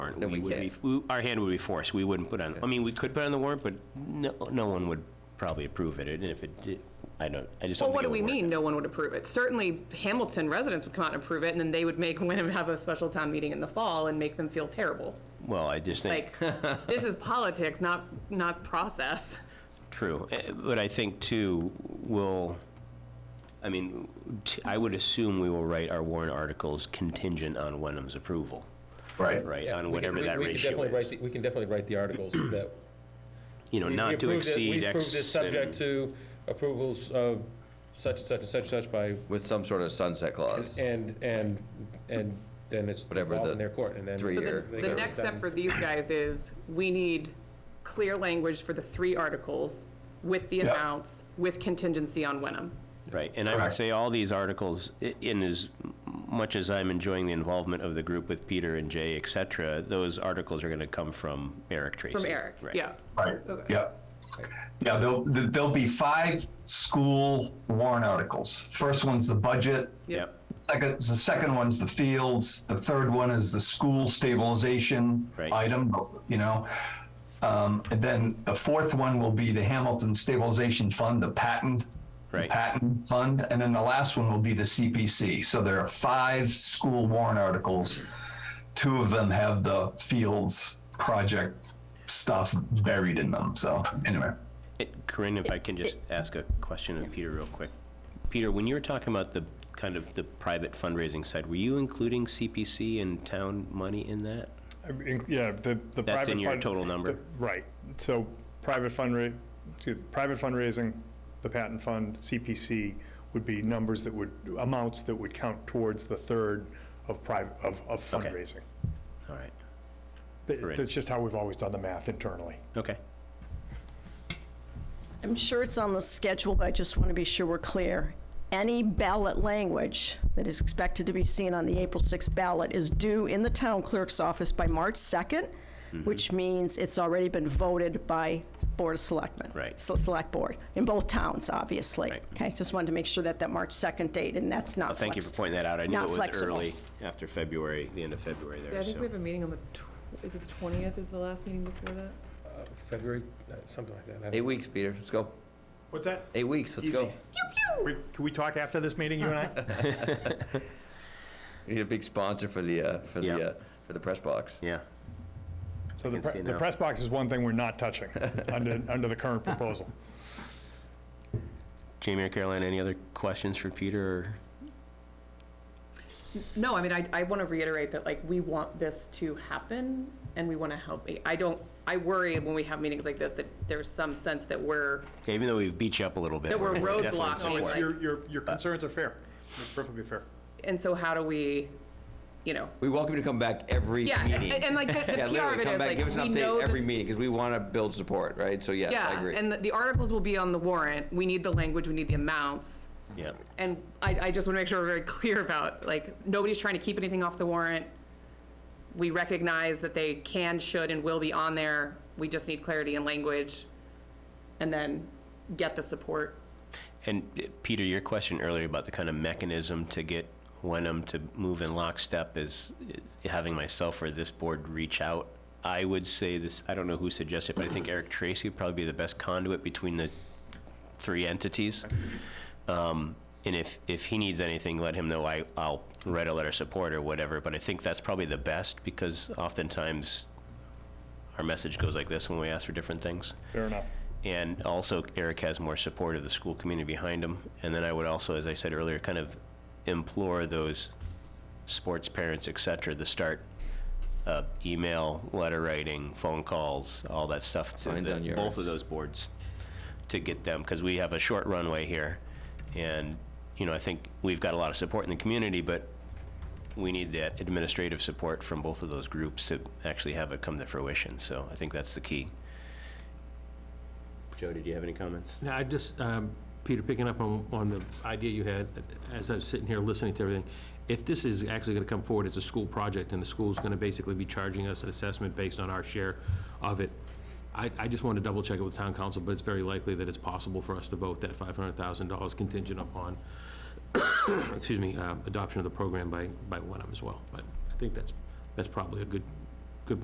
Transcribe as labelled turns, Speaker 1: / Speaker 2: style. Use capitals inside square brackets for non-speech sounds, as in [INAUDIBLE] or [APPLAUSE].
Speaker 1: warrant.
Speaker 2: Then we
Speaker 1: would be-
Speaker 2: can't.
Speaker 1: we- Our hand would be forced, we wouldn't put on, I mean, we could put on the warrant, but no, no one would probably approve it, and if it did, I don't, I just
Speaker 2: Well,
Speaker 1: don't
Speaker 2: what
Speaker 1: think
Speaker 2: do
Speaker 1: it
Speaker 2: we
Speaker 1: would work.
Speaker 2: mean, no one would approve it? Certainly Hamilton residents would come out and approve it, and then they would make [LAUGHS] Wyndham have a special town meeting in the fall and make them feel terrible.
Speaker 1: Well, I just think.
Speaker 2: Like, this is politics, not, not process.
Speaker 1: True, Eh, but I think too, we'll, I mean, t- I would assume we will write our warrant articles contingent on Wenham's approval,
Speaker 3: Right.
Speaker 1: right,
Speaker 4: Yeah, we
Speaker 1: on
Speaker 4: can-
Speaker 1: whatever
Speaker 4: we-
Speaker 1: that
Speaker 4: we can
Speaker 1: ratio
Speaker 4: definitely write
Speaker 1: is.
Speaker 4: the- We can definitely write the
Speaker 1: [CLEARS THROAT]
Speaker 4: articles that.
Speaker 1: You know,
Speaker 4: we- we
Speaker 1: not to
Speaker 4: approved it-
Speaker 1: exceed
Speaker 4: We approve this
Speaker 1: X.
Speaker 4: subject
Speaker 1: and-
Speaker 4: to approvals of such and such and such and such by,
Speaker 3: With some sort of sunset clause.
Speaker 4: and, and, and then it's, it
Speaker 3: Whatever
Speaker 4: falls
Speaker 3: the
Speaker 4: in their court, and then.
Speaker 3: three
Speaker 2: So the-
Speaker 3: year.
Speaker 2: The
Speaker 4: They
Speaker 2: next
Speaker 4: got it
Speaker 2: step
Speaker 4: done.
Speaker 2: for these guys is, we need clear language for the three articles with the amounts, with contingency on Wenham.
Speaker 1: Right, and I would
Speaker 3: Correct.
Speaker 1: say all these articles, i- in as much as I'm enjoying the involvement of the group with Peter and Jay, et cetera, those articles are gonna come from Eric Tracy.
Speaker 2: From Eric,
Speaker 1: Right.
Speaker 2: yeah.
Speaker 5: Right, yeah. Yeah, there'll, there'll be five school warrant articles. First one's the budget.
Speaker 1: Yep,
Speaker 5: Second, uh, the second one's the fields. The third one is the school stabilization
Speaker 1: Right.
Speaker 5: item, you know. Um, and then the fourth one will be the Hamilton Stabilization Fund, the patent. the
Speaker 1: Right.
Speaker 5: Patent fund. And then the last one will be the CPC. So there are five school warrant articles. Two of them have the fields project stuff buried in them. So anyway.
Speaker 1: It- Corinne, if I can just ask a question of Peter real quick. Peter, when you were talking about the, kind of the private fundraising side, were you including CPC and town money in that?
Speaker 6: I mean, Yeah, the, the private.
Speaker 1: That's in your
Speaker 6: fund-
Speaker 1: total number?
Speaker 6: the- Right, so private fundraising, private fundraising, the patent fund, CPC would be numbers that would, amounts that would count towards the third of private, of of
Speaker 1: Okay.
Speaker 6: fundraising.
Speaker 1: All right,
Speaker 6: That-
Speaker 1: Right.
Speaker 6: That's just how we've always done the math internally.
Speaker 1: okay.
Speaker 7: I'm sure it's on the schedule, but I just want to be sure we're clear. Any ballot language that is expected to be seen on the April 6th ballot is due in the town clerk's office by March 2nd,
Speaker 1: Mm-hmm.
Speaker 7: which means it's already been voted by Board of Selectmen.
Speaker 1: Right.
Speaker 7: Se- Select Board, in both towns, obviously.
Speaker 1: Right.
Speaker 7: Okay, just wanted to make sure that that March 2nd date, and that's not
Speaker 1: Thank you for
Speaker 7: flex-
Speaker 1: pointing that out. I knew
Speaker 7: Not
Speaker 1: it was
Speaker 7: flexible.
Speaker 1: early, after February, the end of February
Speaker 8: Yeah,
Speaker 1: there,
Speaker 8: I think we
Speaker 1: so.
Speaker 8: have a meeting on the, tw- is it the 20th is the last meeting before that?
Speaker 4: February, uh, something like that. I don't-
Speaker 3: Eight weeks, Peter, let's go.
Speaker 6: What's that?
Speaker 3: Eight weeks, let's go.
Speaker 6: Easy. We- Can we talk after this meeting, you and I?
Speaker 3: [LAUGHS] We need a big sponsor for the, uh, for
Speaker 1: Yeah.
Speaker 3: the, uh, for the press box.
Speaker 1: Yeah,
Speaker 6: So the,
Speaker 1: can see
Speaker 6: pre- the
Speaker 1: now.
Speaker 6: press box is one thing we're
Speaker 1: [LAUGHS]
Speaker 6: not touching under, under the current proposal.
Speaker 1: Jamie or Caroline, any other questions for Peter? or-
Speaker 2: No, I mean, I, I want to reiterate that, like, we want this to happen and we want to help. I don't, I worry when we have meetings like this that there's some sense that we're,
Speaker 1: Even though we've beat you up a little bit.
Speaker 2: That we're
Speaker 1: definitely in
Speaker 2: roadblocking,
Speaker 1: support.
Speaker 2: like-
Speaker 6: Your, your,
Speaker 1: Uh,
Speaker 6: your concerns are fair, They're perfectly fair.
Speaker 2: and so how do we, you know?
Speaker 3: We welcome you to come back every
Speaker 2: Yeah,
Speaker 3: meeting.
Speaker 2: and, and like, the the
Speaker 3: Yeah,
Speaker 2: PR
Speaker 3: literally,
Speaker 2: of it
Speaker 3: come
Speaker 2: is,
Speaker 3: back,
Speaker 2: like,
Speaker 3: give us
Speaker 2: we
Speaker 3: an
Speaker 2: know
Speaker 3: update
Speaker 2: that
Speaker 3: every meeting, because we want to build support, right? So, yes, I
Speaker 2: Yeah,
Speaker 3: agree.
Speaker 2: and the- the articles will be on the warrant. We need the language, we need the amounts.
Speaker 1: Yeah,
Speaker 2: And I, I just want to make sure we're very [LAUGHS] clear about, like, nobody's trying to keep anything off the warrant. We recognize that they can, should, and will be on there. We just need clarity and language, and then get the support.
Speaker 1: and uh, Peter, your question earlier about the kind of mechanism to get Wenham to move in lockstep is is having myself or this board reach out. I would say this, I don't know who suggested, but I think Eric Tracy would probably be the best conduit between the three entities. Um, And if, if he needs anything, let him know. I, I'll write a letter of support or whatever. But I think that's probably the best because oftentimes our message goes like this when we ask for different things.
Speaker 6: Fair enough.
Speaker 1: And also, Eric has more support of the school community behind him. And then I would also, as I said earlier, kind of implore those sports parents, et cetera, to start uh, email, letter writing, phone calls, all that stuff to
Speaker 3: Mine's
Speaker 1: the-
Speaker 3: on yours.
Speaker 1: both of those boards to get them, because we have a short runway here. And, you know, I think we've got a lot of support in the community, but we need that administrative support from both of those groups to actually have it come to fruition. So I think that's the key. Joe, did you have any comments?
Speaker 4: No, I just, um, Peter, picking up on, on the idea you had, as I was sitting here listening to everything, if this is actually gonna come forward as a school project, and the school's gonna basically be charging us an assessment based on our share of it, I, I just wanted to double check it with town council, but it's very likely that it's possible for us to vote that five hundred thousand dollars contingent upon, [COUGHS] excuse me, uh, adoption of the program by, by Wenham as well. But I think that's, that's probably a good,